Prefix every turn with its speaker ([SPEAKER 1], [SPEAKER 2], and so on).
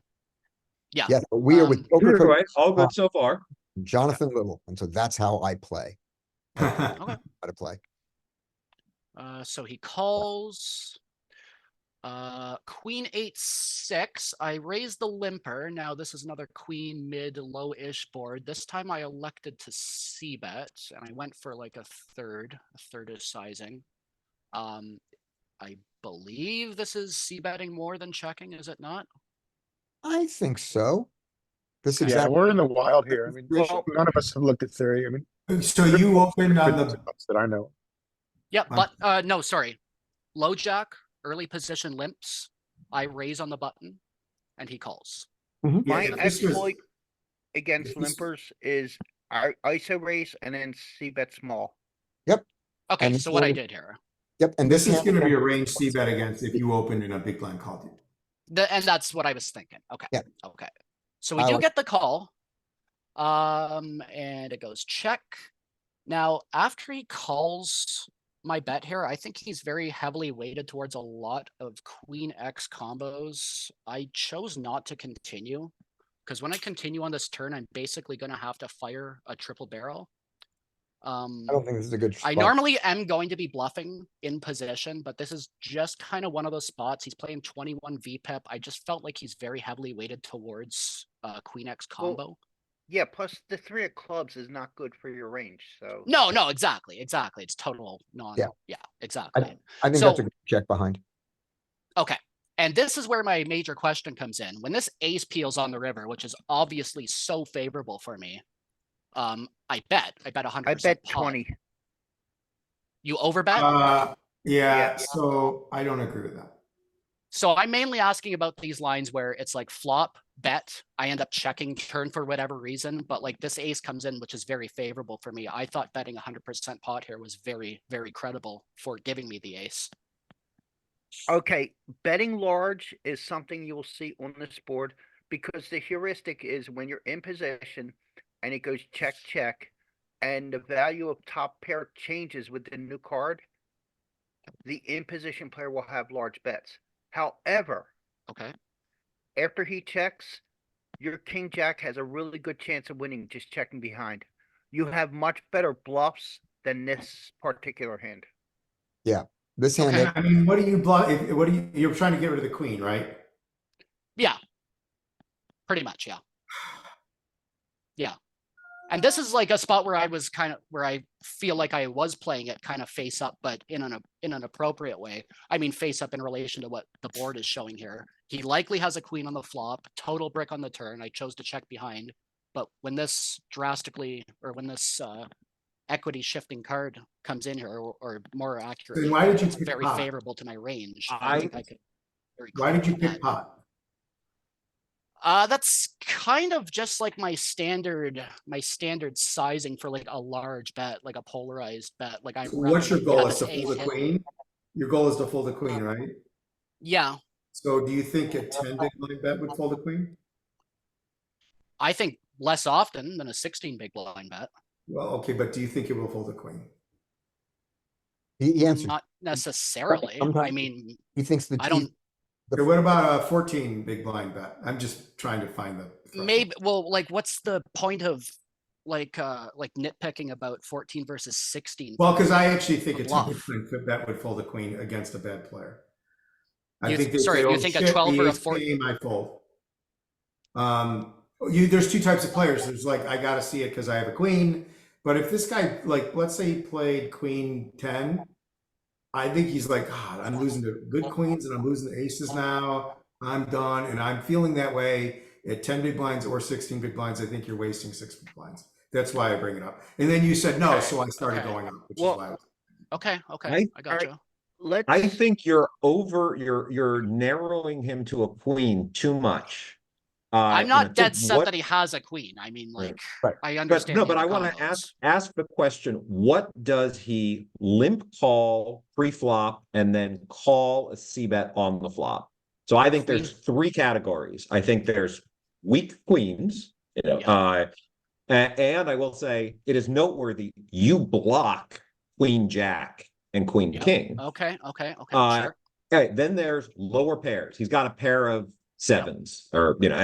[SPEAKER 1] Yeah.
[SPEAKER 2] Yes, but we are
[SPEAKER 1] Um,
[SPEAKER 2] with
[SPEAKER 3] You're
[SPEAKER 2] Joker Coach
[SPEAKER 3] right, all good so far.
[SPEAKER 2] Jonathan Little, and so that's how I play.
[SPEAKER 1] Okay.
[SPEAKER 2] How to play.
[SPEAKER 1] Uh, so he calls. Uh, queen eight six. I raised the limper. Now this is another queen mid low-ish board. This time I elected to c bet, and I went for like a third. A third is sizing. Um, I believe this is c betting more than checking, is it not?
[SPEAKER 2] I think so. This is
[SPEAKER 4] Yeah,
[SPEAKER 2] exactly,
[SPEAKER 4] we're in the wild here. I mean,
[SPEAKER 2] Well-
[SPEAKER 4] should- none of us have looked at theory. I mean,
[SPEAKER 5] So you opened on the,
[SPEAKER 4] that I know.
[SPEAKER 1] Yeah,
[SPEAKER 5] Um,
[SPEAKER 1] but uh, no, sorry. Low jack, early position limps. I raise on the button, and he calls.
[SPEAKER 5] yeah,
[SPEAKER 6] My
[SPEAKER 5] this was,
[SPEAKER 6] exploit against
[SPEAKER 5] this-
[SPEAKER 6] limpers is I ISO raise and then C bet small.
[SPEAKER 1] Okay,
[SPEAKER 2] And
[SPEAKER 1] so what I
[SPEAKER 2] so-
[SPEAKER 1] did here,
[SPEAKER 2] yep, and
[SPEAKER 5] this
[SPEAKER 2] this
[SPEAKER 5] is gonna be a range C bet against if you opened in a big blind called it.
[SPEAKER 1] the, and that's what I was thinking. Okay,
[SPEAKER 2] Yeah.
[SPEAKER 1] okay. So we
[SPEAKER 2] I
[SPEAKER 1] do
[SPEAKER 2] like-
[SPEAKER 1] get the call. Um, and it goes check. Now, after he calls my bet here, I think he's very heavily weighted towards a lot of queen X combos. I chose not to continue. Because when I continue on this turn, I'm basically gonna have to fire a triple barrel. Um,
[SPEAKER 2] I don't think this is a good
[SPEAKER 1] I
[SPEAKER 2] spot.
[SPEAKER 1] normally am going to be bluffing in position, but this is just kind of one of those spots. He's playing twenty-one VPEP. I just felt like he's very heavily weighted towards uh, Queen X
[SPEAKER 6] Well,
[SPEAKER 1] combo.
[SPEAKER 6] Yeah, plus the three of clubs is not good for your range, so.
[SPEAKER 1] No, no, exactly, exactly. It's total non.
[SPEAKER 2] Yeah.
[SPEAKER 1] Yeah, exactly.
[SPEAKER 2] I think that's
[SPEAKER 1] so-
[SPEAKER 2] a good check behind.
[SPEAKER 1] And this is where my major question comes in. When this ace peels on the river, which is obviously so favorable for me, um, I bet. I bet
[SPEAKER 6] I
[SPEAKER 1] hundred percent.
[SPEAKER 6] bet twenty.
[SPEAKER 1] You overbet.
[SPEAKER 5] Uh, yeah,
[SPEAKER 6] Yeah.
[SPEAKER 5] so I don't agree with that.
[SPEAKER 1] So I'm mainly asking about these lines where it's like flop, bet, I end up checking turn for whatever reason, but like this ace comes in, which is very favorable for me. I thought betting hundred percent pot here was very, very credible for giving me the ace.
[SPEAKER 6] Okay, betting large is something you will see on this board because the heuristic is when you're in possession and it goes check, check, and the value of top pair changes with the new card, the in position player will have large bets. However,
[SPEAKER 1] Okay,
[SPEAKER 6] after he checks, your king jack has a really good chance of winning just checking behind. You have much better bluffs than this particular hand.
[SPEAKER 2] This hand,
[SPEAKER 1] Okay.
[SPEAKER 2] that-
[SPEAKER 5] I mean, what do you block, if- what do you, you're trying to get rid of the queen, right?
[SPEAKER 1] pretty much, yeah. Yeah. And this is like a spot where I was kind of, where I feel like I was playing it kind of face up, but in an, in an appropriate way. I mean, face up in relation to what the board is showing here. He likely has a queen on the flop, total brick on the turn. I chose to check behind. But when this drastically, or when this uh, equity shifting card comes in here, or, or more accurately,
[SPEAKER 5] why did you
[SPEAKER 1] it's
[SPEAKER 5] pick
[SPEAKER 1] very
[SPEAKER 5] pot?
[SPEAKER 1] favorable to my range.
[SPEAKER 3] I-
[SPEAKER 1] think I could very
[SPEAKER 5] Why did you
[SPEAKER 1] clearly bet.
[SPEAKER 5] pick pot?
[SPEAKER 1] Uh, that's kind of just like my standard, my standard sizing for like a large bet, like a polarized bet, like I.
[SPEAKER 5] So What's your goal is to
[SPEAKER 1] pull
[SPEAKER 5] fold the queen? Your goal is to fold the queen, right?
[SPEAKER 1] Yeah,
[SPEAKER 5] So do you think a ten big blind bet would fold the queen?
[SPEAKER 1] I think less often than a sixteen big blind bet,
[SPEAKER 5] Well, okay, but do you think it will fold the queen?
[SPEAKER 2] he he answered,
[SPEAKER 1] not necessarily. I
[SPEAKER 2] sometimes-
[SPEAKER 1] mean,
[SPEAKER 2] he thinks the.
[SPEAKER 1] I
[SPEAKER 2] he-
[SPEAKER 1] don't,
[SPEAKER 2] the-
[SPEAKER 5] Okay, what about a fourteen big blind bet? I'm just trying to find the. threshold.
[SPEAKER 1] maybe, well, like, what's the point of like, uh, like nitpicking about fourteen versus sixteen?
[SPEAKER 5] Well, because I actually think
[SPEAKER 1] A
[SPEAKER 5] it's a
[SPEAKER 1] bluff.
[SPEAKER 5] different could bet would fold a queen against a bad player.
[SPEAKER 1] You
[SPEAKER 5] I
[SPEAKER 1] th-
[SPEAKER 5] think they
[SPEAKER 1] sorry,
[SPEAKER 5] say,
[SPEAKER 1] you
[SPEAKER 5] "Oh,
[SPEAKER 1] think a
[SPEAKER 5] shit,
[SPEAKER 1] 12 or
[SPEAKER 5] the
[SPEAKER 1] a
[SPEAKER 5] ace
[SPEAKER 1] 14?
[SPEAKER 5] came, I fold. Um, you, there's two types of players. There's like, I gotta see it because I have a queen. But if this guy, like, let's say he played queen ten, I think he's like, God, I'm losing to good queens and I'm losing to aces now. I'm done, and I'm feeling that way at ten big blinds or sixteen big blinds. I think you're wasting six big blinds. That's why I bring it up. And then you said no,
[SPEAKER 1] Okay,
[SPEAKER 5] so I started
[SPEAKER 1] okay.
[SPEAKER 5] going up, which
[SPEAKER 6] Well,
[SPEAKER 5] is why. I was
[SPEAKER 1] Okay, okay,
[SPEAKER 3] I-
[SPEAKER 1] I gotcha.
[SPEAKER 6] Let's.
[SPEAKER 3] I think you're over, you're, you're narrowing him to a queen too much. Uh,
[SPEAKER 1] I'm
[SPEAKER 3] and I
[SPEAKER 1] not
[SPEAKER 3] think
[SPEAKER 1] dead set
[SPEAKER 3] what-
[SPEAKER 1] that he has a queen. I mean,
[SPEAKER 3] Right,
[SPEAKER 1] like,
[SPEAKER 2] right.
[SPEAKER 1] I
[SPEAKER 3] But
[SPEAKER 1] understand.
[SPEAKER 3] no,
[SPEAKER 1] the
[SPEAKER 3] but I
[SPEAKER 1] other
[SPEAKER 3] wanna
[SPEAKER 1] combos.
[SPEAKER 3] ask, ask the question, what does he limp call pre-flop and then call a C bet on the flop? So I think there's three categories. I think there's weak queens, you know,
[SPEAKER 1] Yeah.
[SPEAKER 3] uh. a- and I will say, it is noteworthy, you block queen jack and queen
[SPEAKER 1] Yeah.
[SPEAKER 3] king.
[SPEAKER 1] Okay, okay, okay,
[SPEAKER 3] Uh,
[SPEAKER 1] sure.
[SPEAKER 3] Okay, then there's lower pairs. He's got a pair of sevens or, you know,